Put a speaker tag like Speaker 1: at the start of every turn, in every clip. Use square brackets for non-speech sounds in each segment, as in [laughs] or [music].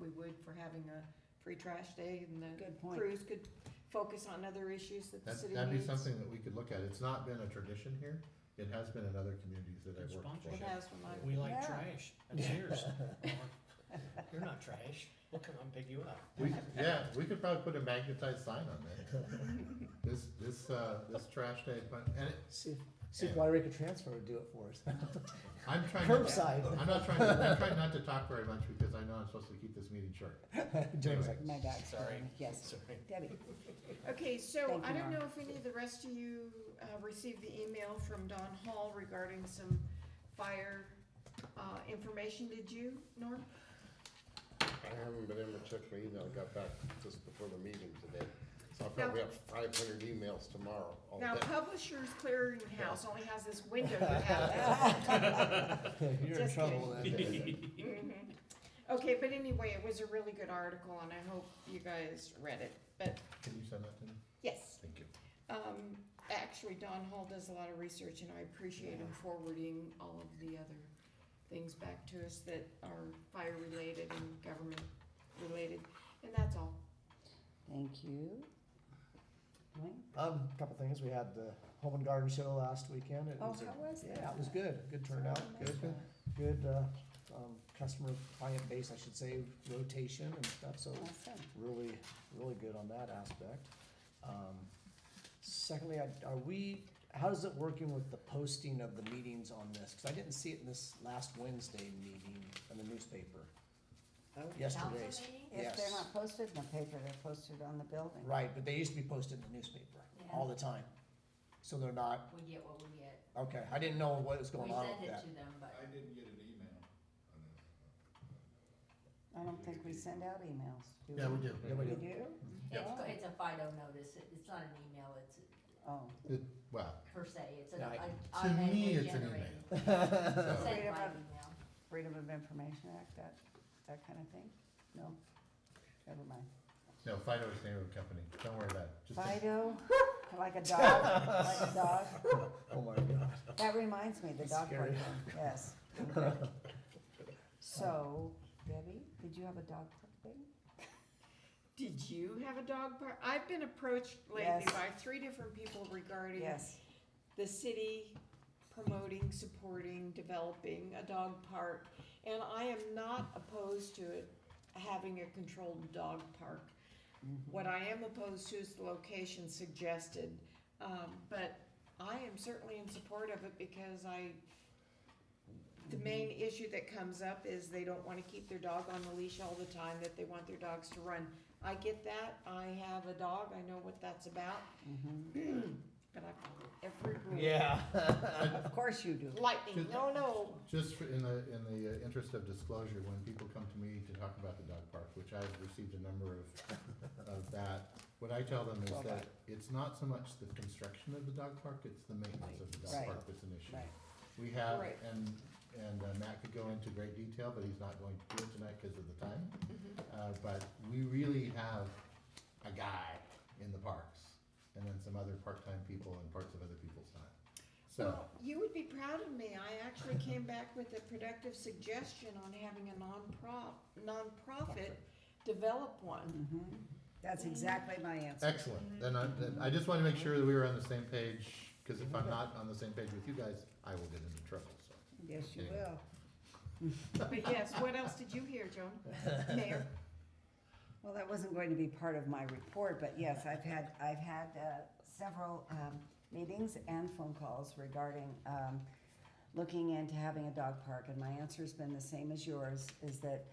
Speaker 1: rewarded for having a free trash day and the
Speaker 2: Good point.
Speaker 1: crews could focus on other issues that the
Speaker 3: That,
Speaker 1: city needs.
Speaker 3: that'd be something that we could look at. It's not been a tradition here. It has been in other communities that I've
Speaker 4: Good
Speaker 3: worked for.
Speaker 1: It
Speaker 4: sponsorship.
Speaker 1: has from my-
Speaker 4: We like
Speaker 2: Yeah.
Speaker 5: [laughs]
Speaker 4: trash. That's yours. Mark. You're not trash. We'll come and pick you up.
Speaker 3: We, yeah, we could probably put a magnetized sign on that. This, this, uh, this trash day, but, and it,
Speaker 5: See if, see if Water Rica Transfer would do it for us.
Speaker 2: [laughs]
Speaker 5: [laughs]
Speaker 3: I'm trying to.
Speaker 5: Curbside.
Speaker 3: I'm not trying, I'm trying not to talk very much because I know I'm supposed to keep this meeting short.
Speaker 5: Jeremy's like,
Speaker 2: My dog's
Speaker 4: Sorry.
Speaker 2: calling. Yes,
Speaker 4: Sorry.
Speaker 2: Debbie.
Speaker 1: Okay, so
Speaker 2: Thank
Speaker 1: I
Speaker 2: you,
Speaker 1: don't
Speaker 2: Norm.
Speaker 1: know if any of the rest of you uh, received the email from Don Hall regarding some fire uh, information, did you, Norm?
Speaker 6: I haven't been able to check my email, I got back just before the meeting today, so I'll probably have five hundred emails tomorrow,
Speaker 3: Oh,
Speaker 6: all day. [laughs]
Speaker 1: [laughs] Now, Publishers Clearinghouse only has this window you have.
Speaker 5: [laughs]
Speaker 3: [laughs]
Speaker 5: you're in
Speaker 1: Just
Speaker 5: trouble then.
Speaker 1: Mhm. Okay, but anyway, it was a really good article and I hope you guys read it, but
Speaker 3: Can you send that to me?
Speaker 1: yes.
Speaker 3: Thank you.
Speaker 1: Um, actually, Don Hall does a lot of research, and I appreciate him forwarding all of the other things back to us that are fire-related and government-related, and that's all.
Speaker 2: Thank you. Dwayne?
Speaker 5: Um, couple things, we had the Home and Garden Show last weekend. It
Speaker 2: Oh,
Speaker 5: was a-
Speaker 2: how was
Speaker 5: Yeah,
Speaker 2: that?
Speaker 5: it was good, good turnout, good, good, uh, um, customer client base, I should say, rotation and stuff, so
Speaker 2: Awesome.
Speaker 5: really, really good on that aspect. Um, Secondly, I- are we, how is it working with the posting of the meetings on this? Cause I didn't see it in this last Wednesday meeting in the newspaper. Yesterday's,
Speaker 2: If they're
Speaker 5: Yes.
Speaker 2: not posted in the paper, they're posted on the building.
Speaker 5: right, but they used to be posted in the newspaper all the time. So they're not,
Speaker 7: We get what we get.
Speaker 5: okay, I didn't know what was
Speaker 7: We
Speaker 5: going on
Speaker 7: send
Speaker 5: with
Speaker 7: it
Speaker 5: that.
Speaker 7: to them, but
Speaker 6: didn't get an email.
Speaker 2: I don't think we send out emails, do we?
Speaker 3: Yeah, we do.
Speaker 5: Yeah, we
Speaker 2: We
Speaker 5: do.
Speaker 2: do?
Speaker 7: it's, co- it's a FIDO notice, It- it's not an email, it's
Speaker 2: Oh,
Speaker 3: It- Well,
Speaker 7: per se, it's an
Speaker 5: No, I-
Speaker 7: au-
Speaker 3: to me,
Speaker 7: automatically
Speaker 3: it's an
Speaker 7: generated.
Speaker 3: email.
Speaker 7: Sent by
Speaker 2: Wait a
Speaker 7: email.
Speaker 2: minute. Freedom of Information Act, that, that kind of thing? No? Never mind.
Speaker 3: No, Fido is the name of the company. Don't worry about it. Just take-
Speaker 2: Fido, [laughs] like a dog, like a dog.
Speaker 5: [laughs] Oh my god.
Speaker 2: That reminds me, the dog
Speaker 5: Scary.
Speaker 2: park, thing, yes. So, Debbie, did you have a dog park thing?
Speaker 1: Did you have a dog park? I've been approached lately
Speaker 2: Yes.
Speaker 1: by three different people regarding
Speaker 2: Yes,
Speaker 1: the city promoting, supporting, developing a dog park. And I am not opposed to it having a controlled dog park. What I am opposed to is the location suggested. Um, but I am certainly in support of it because I, the main issue that comes up is they don't wanna keep their dog on the leash all the time, that they want their dogs to run. I get that. I have a dog. I know what that's about. [clears throat] But I follow every rule.
Speaker 5: Yeah.
Speaker 2: of course you do.
Speaker 1: Lightning, no, no.
Speaker 3: Just for- in the, in the uh, interest of disclosure, when people come to me to talk about the dog park, which I've received a number of,
Speaker 2: [laughs]
Speaker 3: of that, what I tell them is
Speaker 5: Well,
Speaker 3: that it's not so much the construction of the dog park, it's the maintenance of the dog
Speaker 2: Right.
Speaker 3: park that's an issue.
Speaker 2: Right.
Speaker 3: We have,
Speaker 1: Right.
Speaker 3: and, and uh, Matt could go into great detail, but he's not going to do it tonight because of the time. Uh, but we really have a guy in the parks, and then some other part-time people and parts of other people's time. So,
Speaker 1: Well, you would be proud of me. I actually came back with a productive suggestion on having a non-prop, nonprofit develop one.
Speaker 2: That's exactly my answer.
Speaker 3: Excellent, then I, then I just wanna make sure that we were on the same page, cause if I'm not on the same page with you guys, I will get into trouble, so.
Speaker 2: Yes, you
Speaker 3: Okay.
Speaker 2: will.
Speaker 1: But yes, what else did you hear,
Speaker 4: [laughs]
Speaker 1: Joan? Mayor?
Speaker 2: Well, that wasn't going to be part of my report, but yes, I've had, I've had uh, several um, meetings and phone calls regarding um, looking into having a dog park, and my answer's been the same as yours, is that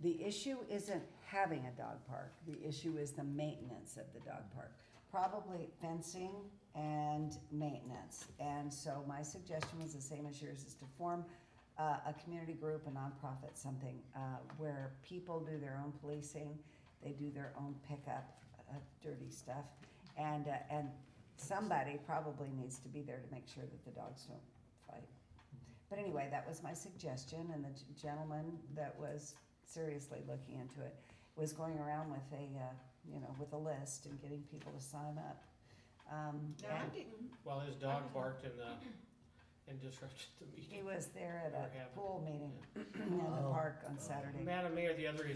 Speaker 2: the issue isn't having a dog park, the issue is the maintenance of the dog park. Probably fencing and maintenance, and so my suggestion was the same as yours, is to form uh, a community group, a nonprofit, something, uh, where people do their own policing, they do their own pickup, uh, dirty stuff, and, uh, and somebody probably needs to be there to make sure that the dogs don't fight. But anyway, that was my suggestion, and the g- gentleman that was seriously looking into it was going around with a, uh, you know, with a list and getting people to sign up. Um,
Speaker 1: No, I
Speaker 2: and
Speaker 1: didn't.
Speaker 4: While his dog barked and, uh, and disrupted the
Speaker 2: he
Speaker 4: meeting.
Speaker 2: was there at
Speaker 4: Never happened.
Speaker 2: a pool meeting in the
Speaker 5: Oh.
Speaker 2: park on Saturday.
Speaker 4: Madam Mayor, the other